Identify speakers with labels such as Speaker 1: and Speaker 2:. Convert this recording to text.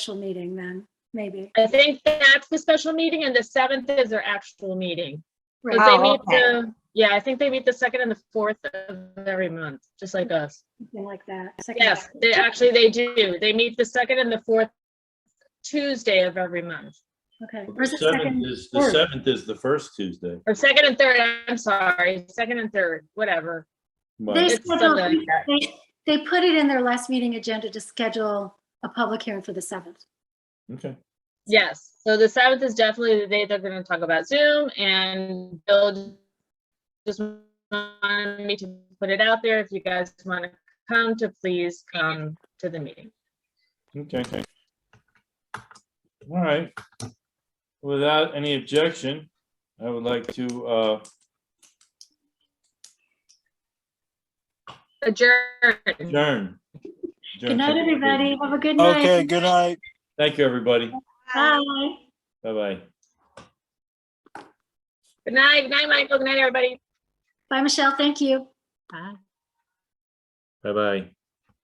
Speaker 1: special meeting then, maybe.
Speaker 2: I think that's the special meeting and the seventh is their actual meeting. 'Cause
Speaker 1: Right,
Speaker 2: they
Speaker 3: Oh,
Speaker 2: meet
Speaker 3: okay.
Speaker 2: the- Yeah, I think they meet the second and the fourth of every month, just like us.
Speaker 1: Something like that. second
Speaker 2: Yes,
Speaker 1: half.
Speaker 2: they actually, they do. They meet the second and the fourth Tuesday of every month.
Speaker 1: Okay.
Speaker 4: The
Speaker 1: Or is it
Speaker 4: seventh
Speaker 1: second?
Speaker 4: is- The
Speaker 1: third?
Speaker 4: seventh is the first Tuesday.
Speaker 2: Or second and third, I'm sorry, second and third, whatever.
Speaker 4: Well,
Speaker 1: They
Speaker 2: It's
Speaker 1: scheduled,
Speaker 2: Sunday.
Speaker 1: they, they put it in their last meeting agenda to schedule a public hearing for the seventh.
Speaker 4: Okay,
Speaker 2: Yes, so the seventh is definitely the day they're gonna talk about Zoom and Bill just wanted me to put it out there. If you guys wanna come to, please come to the meeting.
Speaker 4: okay. All right. Without any objection, I would like to, uh,
Speaker 2: adjourn.
Speaker 4: adjourn.
Speaker 1: Good night, everybody. Have a good night.
Speaker 5: Okay, good night.
Speaker 4: Thank you, everybody.
Speaker 1: Bye.
Speaker 4: Bye-bye.
Speaker 2: Good night, good night, Michael. Good night, everybody.
Speaker 1: Bye, Michelle. Thank you.
Speaker 2: Bye.
Speaker 4: Bye-bye.